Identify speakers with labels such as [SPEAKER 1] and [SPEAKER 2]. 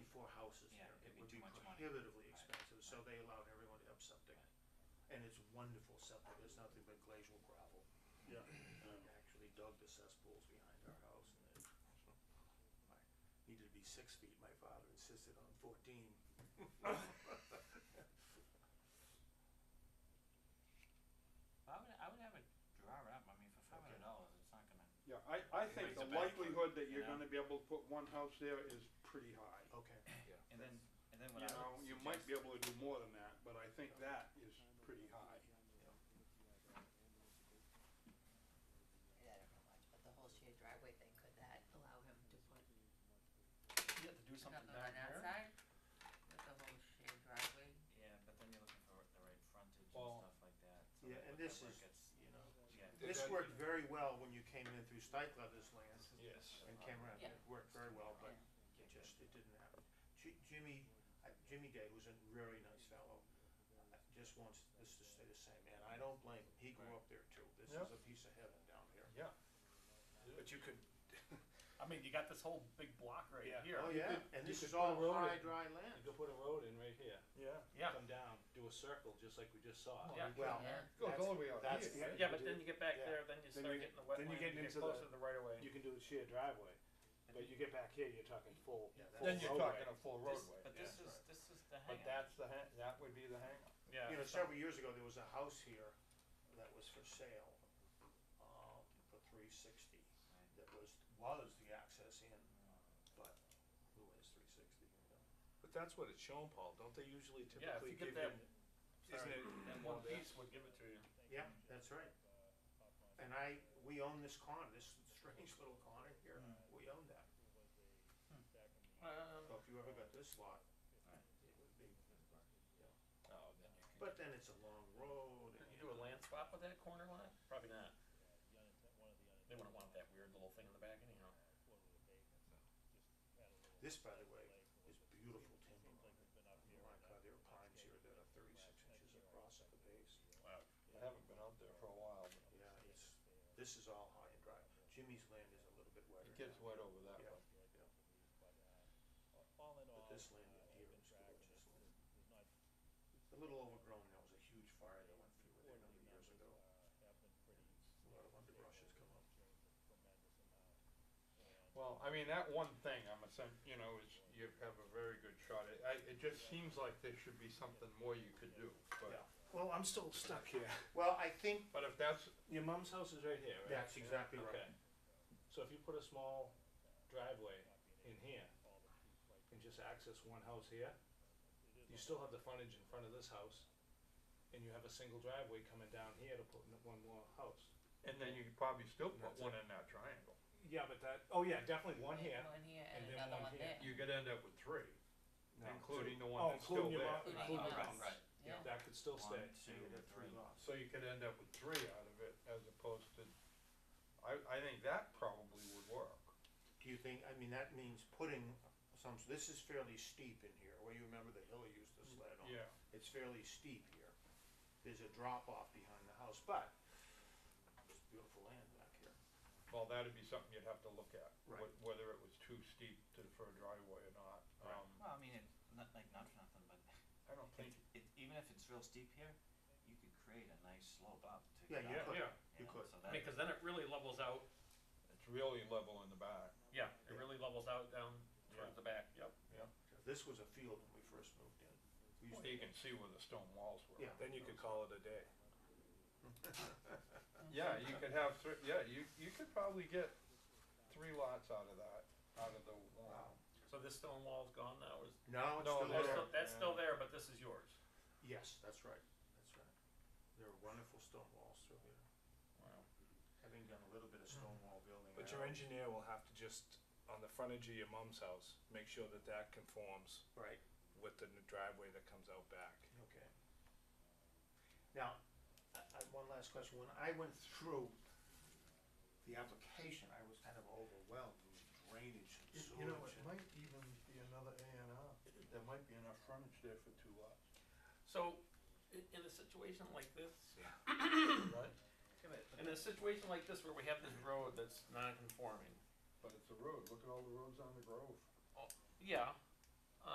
[SPEAKER 1] prohibitively expensive, so they allowed everyone to have septic. And it's wonderful septic, it's nothing but glacial gravel.
[SPEAKER 2] Yeah.
[SPEAKER 1] I actually dug the cesspools behind our house and it I needed to be six feet, my father insisted on fourteen.
[SPEAKER 3] I would, I would have it draw it up, I mean, for five hundred dollars, it's not gonna,
[SPEAKER 2] Yeah, I, I think
[SPEAKER 3] Makes
[SPEAKER 2] the
[SPEAKER 3] a bad
[SPEAKER 2] likelihood that you're
[SPEAKER 3] you know?
[SPEAKER 2] gonna be able to put one house there is pretty high.
[SPEAKER 1] Okay,
[SPEAKER 3] and then, and then
[SPEAKER 2] You
[SPEAKER 3] what I
[SPEAKER 2] know,
[SPEAKER 3] would
[SPEAKER 2] you might be
[SPEAKER 3] suggest,
[SPEAKER 2] able to do more than that, but I think that is pretty high.
[SPEAKER 4] I don't know much, but the whole shared driveway thing, could that allow him to put
[SPEAKER 5] You have to do something
[SPEAKER 4] another
[SPEAKER 5] down
[SPEAKER 4] one
[SPEAKER 5] here.
[SPEAKER 4] outside? With the whole shared driveway?
[SPEAKER 3] yeah, but then you're looking for the right frontage and
[SPEAKER 5] Well,
[SPEAKER 3] stuff like that, so
[SPEAKER 1] yeah,
[SPEAKER 3] that
[SPEAKER 1] and
[SPEAKER 3] what-
[SPEAKER 1] this is,
[SPEAKER 3] that work gets-
[SPEAKER 1] you know,
[SPEAKER 3] yeah.
[SPEAKER 1] this
[SPEAKER 6] that-
[SPEAKER 1] worked very well when you came in through Stike Leather's land
[SPEAKER 6] Yes.
[SPEAKER 1] and came around, it
[SPEAKER 4] Yeah.
[SPEAKER 1] worked very well, but it just, it didn't happen. Ji- Jimmy, I- Jimmy Day was a very nice fellow, uh, just wants this to stay the same, and I don't blame him, he grew
[SPEAKER 3] Right.
[SPEAKER 1] up there too, this
[SPEAKER 5] Yeah.
[SPEAKER 1] is a piece of heaven down here.
[SPEAKER 6] But you could,
[SPEAKER 5] I mean, you got this whole big block right
[SPEAKER 6] Yeah.
[SPEAKER 5] here.
[SPEAKER 1] Oh,
[SPEAKER 6] You
[SPEAKER 1] yeah,
[SPEAKER 6] could-
[SPEAKER 1] and
[SPEAKER 6] you
[SPEAKER 1] this
[SPEAKER 6] could
[SPEAKER 1] is
[SPEAKER 6] put a
[SPEAKER 1] all
[SPEAKER 6] road
[SPEAKER 1] high,
[SPEAKER 6] in.
[SPEAKER 1] dry land.
[SPEAKER 6] you could put a road in right here.
[SPEAKER 2] Yeah.
[SPEAKER 5] Yeah.
[SPEAKER 6] Come down, do a circle, just like we just saw.
[SPEAKER 5] Yeah.
[SPEAKER 1] Well,
[SPEAKER 4] Yeah.
[SPEAKER 1] that's,
[SPEAKER 2] the way out
[SPEAKER 1] that's-
[SPEAKER 2] here, right?
[SPEAKER 5] Yeah, but then you get back
[SPEAKER 1] Yeah.
[SPEAKER 5] there, then you
[SPEAKER 6] Then
[SPEAKER 5] start
[SPEAKER 6] you
[SPEAKER 5] getting the
[SPEAKER 6] then
[SPEAKER 5] wetland,
[SPEAKER 6] you get
[SPEAKER 5] you get
[SPEAKER 6] into the-
[SPEAKER 5] closer to the right of way.
[SPEAKER 6] You can do a shared driveway,
[SPEAKER 3] And
[SPEAKER 6] but you get back here, you're talking full,
[SPEAKER 1] Yeah,
[SPEAKER 6] full
[SPEAKER 1] Then
[SPEAKER 6] roadway.
[SPEAKER 2] a full
[SPEAKER 3] This, but this
[SPEAKER 1] yeah.
[SPEAKER 3] is, this is the
[SPEAKER 6] But
[SPEAKER 3] hangup.
[SPEAKER 6] that's the hang, that would be the hang.
[SPEAKER 5] Yeah.
[SPEAKER 1] you know,
[SPEAKER 5] so-
[SPEAKER 1] several years ago, there was a house here that was for sale, um, for three sixty.
[SPEAKER 3] Right.
[SPEAKER 1] That was, was the access in, but who is three sixty, you know?
[SPEAKER 6] But that's what it's shown, Paul, don't they usually
[SPEAKER 5] Yeah, if you get that,
[SPEAKER 6] isn't it?
[SPEAKER 5] that one piece would give it to you.
[SPEAKER 1] Yeah, that's right.
[SPEAKER 2] Hmm.
[SPEAKER 1] And I, we own this corner, this strange little corner here,
[SPEAKER 6] Hmm.
[SPEAKER 1] we own that.
[SPEAKER 2] Uh, um.
[SPEAKER 1] So if you ever got this lot,
[SPEAKER 3] Right.
[SPEAKER 1] it would be,
[SPEAKER 5] Oh, then you
[SPEAKER 1] but then it's a long road
[SPEAKER 5] Could
[SPEAKER 1] and.
[SPEAKER 5] you do a land swap with that corner line? Probably not. They wouldn't want that weird little thing in the back anyhow.
[SPEAKER 1] This, by the way, is beautiful timber. Oh my God, there are pines here that are thirty-six inches across at the base.
[SPEAKER 5] Wow.
[SPEAKER 6] I haven't been out there for a while, but
[SPEAKER 1] Yeah, it's, this is all high and dry. Jimmy's land is a little bit wetter.
[SPEAKER 6] it gets
[SPEAKER 1] now,
[SPEAKER 6] wet over that
[SPEAKER 1] Yeah.
[SPEAKER 6] way.
[SPEAKER 1] But this land in here is gorgeous. A little overgrown, there was a huge fire that went through it a number of years ago. A lot of underbrush has come up.
[SPEAKER 6] Well, I mean, that one thing, I'm assuming, you know, is you have a very good shot. It, I, it just seems like there should be something more you could do, but.
[SPEAKER 1] Yeah.
[SPEAKER 6] Well, I'm still stuck here.
[SPEAKER 1] Well, I think
[SPEAKER 6] But if that's. Your mom's house is right here, right?
[SPEAKER 1] that's exactly
[SPEAKER 6] Okay.
[SPEAKER 1] right.
[SPEAKER 6] So if you put a small driveway in here and just access one house here, you still have the frontage in front of this house. And you have a single driveway coming down here to put in one more house.
[SPEAKER 5] And then you could probably still
[SPEAKER 6] put one
[SPEAKER 5] in that triangle.
[SPEAKER 6] Yeah, but that, oh yeah, definitely one here.
[SPEAKER 4] One here and
[SPEAKER 6] and then
[SPEAKER 4] another
[SPEAKER 6] one
[SPEAKER 4] one
[SPEAKER 6] here.
[SPEAKER 4] there.
[SPEAKER 5] You could end up with three,
[SPEAKER 1] No.
[SPEAKER 5] the
[SPEAKER 6] Oh, including your mom,
[SPEAKER 4] Including
[SPEAKER 6] including your
[SPEAKER 4] us.
[SPEAKER 6] mom's.
[SPEAKER 4] Right. Yeah.
[SPEAKER 6] That could still
[SPEAKER 3] One,
[SPEAKER 6] stay.
[SPEAKER 1] So you
[SPEAKER 3] two,
[SPEAKER 1] have three
[SPEAKER 3] three.
[SPEAKER 1] lots.
[SPEAKER 5] So you could end up with three out of it as opposed to, I, I think that probably would work.
[SPEAKER 1] Do you think, I mean, that means putting some, this is fairly steep in here, Well, you remember the hill you used to sled on?
[SPEAKER 6] Yeah.
[SPEAKER 1] It's fairly steep here. There's a drop off behind the house, but it's beautiful land back here.
[SPEAKER 6] Well, that'd be something you'd have to look at, wh-
[SPEAKER 1] Right.
[SPEAKER 6] whether it was too steep to, for a driveway or not.
[SPEAKER 1] Right.
[SPEAKER 6] Um,
[SPEAKER 3] Well, I mean, it, not, like, not for nothing, but
[SPEAKER 6] I don't think,
[SPEAKER 3] it, it, even if it's real steep here, you could create a nice slope up to.
[SPEAKER 1] Yeah,
[SPEAKER 3] get
[SPEAKER 1] you
[SPEAKER 3] up,
[SPEAKER 1] could,
[SPEAKER 5] yeah.
[SPEAKER 1] you
[SPEAKER 3] know,
[SPEAKER 1] could.
[SPEAKER 3] So
[SPEAKER 5] I
[SPEAKER 3] that,
[SPEAKER 5] mean, cause then it really levels out,
[SPEAKER 6] it's really level in the back.
[SPEAKER 5] yeah, it really levels out down towards
[SPEAKER 6] Yeah.
[SPEAKER 5] the back, yep.
[SPEAKER 1] This was a field when we first moved in. We used
[SPEAKER 6] So
[SPEAKER 1] to-
[SPEAKER 6] you can see where the stone walls were.
[SPEAKER 1] Yeah. Then you could
[SPEAKER 6] call it a day. Yeah, you could have three, yeah, you, you could probably get three lots out of that, out of the one.
[SPEAKER 1] Wow.
[SPEAKER 5] So this stone wall's gone now, is,
[SPEAKER 1] No, it's
[SPEAKER 6] No,
[SPEAKER 1] still
[SPEAKER 5] that's
[SPEAKER 6] they're-
[SPEAKER 1] there.
[SPEAKER 5] still, that's still there, but this is yours.
[SPEAKER 1] Yes, that's right, that's right. There are wonderful stone walls through here.
[SPEAKER 5] Wow.
[SPEAKER 1] Having done a little bit of stone wall building.
[SPEAKER 7] But
[SPEAKER 1] I
[SPEAKER 7] your
[SPEAKER 1] don't-
[SPEAKER 7] engineer will have to just, on the frontage of your mom's house, make sure that that conforms
[SPEAKER 1] Right,
[SPEAKER 7] with the new driveway that comes out back.
[SPEAKER 1] okay. Now, I, I, one last question. When I went through the application, I was kind of overwhelmed with drainage and sewage. and-
[SPEAKER 6] might even be another A and R, there might be enough frontage there for two lots.
[SPEAKER 5] So, in, in a situation like this,
[SPEAKER 6] Right,
[SPEAKER 5] in a situation like this where we have this road that's non-conforming,
[SPEAKER 6] but it's a road, look at all the roads on the Grove.
[SPEAKER 5] yeah,